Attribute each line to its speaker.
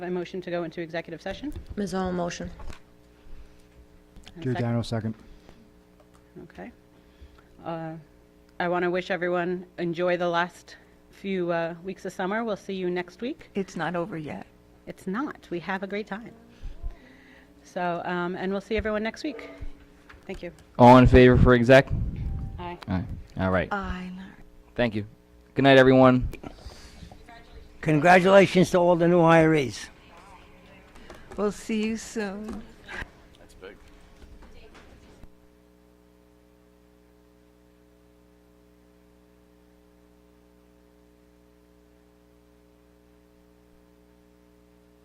Speaker 1: A motion to go into executive session?
Speaker 2: Ms. Owen, motion.
Speaker 1: And a second?
Speaker 3: Giordano, second.
Speaker 1: Okay. Uh, I want to wish everyone, enjoy the last few uh, weeks of summer. We'll see you next week.
Speaker 4: It's not over yet.
Speaker 1: It's not. We have a great time. So, um, and we'll see everyone next week. Thank you.
Speaker 5: All in favor for exec?
Speaker 1: Aye.
Speaker 5: Aye. All right.
Speaker 4: I know.
Speaker 5: Thank you. Good night, everyone.
Speaker 6: Congratulations to all the new hirees.
Speaker 4: We'll see you soon.